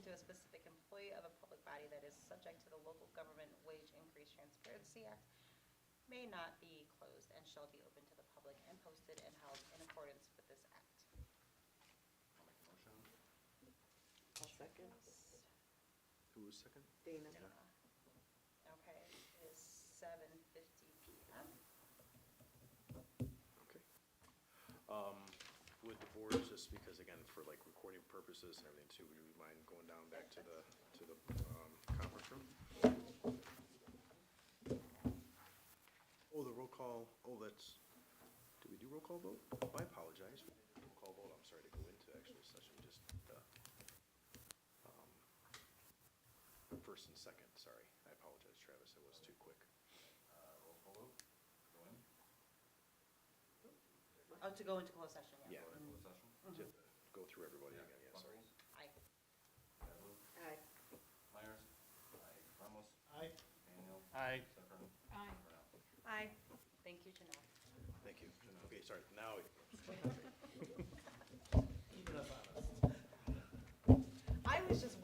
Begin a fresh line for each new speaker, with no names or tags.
subject to the Local Government Wage Increase Transparency Act, may not be closed and shall be open to the public and posted and held in accordance with this act.
I'll make a motion.
I'll second.
Who was second?
Dana.
Okay, it is 7:50 PM.
Okay. Um, Would the board, just because again, for like recording purposes and everything too, would you mind going down back to the, to the um, conference room? Oh, the roll call, oh, that's, did we do roll call vote? Oh, I apologize. We didn't do Roll call vote, I'm sorry to go into actual session, just uh, the um, first and second, sorry. I apologize, Travis, I was too quick.
Roll call vote, go in.
Oh, to go into closed session, yeah. Mm-hmm.
Yeah.
Go into closed session.
Just Go through everybody again, yeah, sorry.
Buckles,
Aye.
Badley,
Aye.
Myers. Aye. Ramos.
Aye.
Daniel.
Aye.
Sucker.
Aye.
Brown.
Aye. Thank you, Janelle.
Thank you. Okay, sorry, now.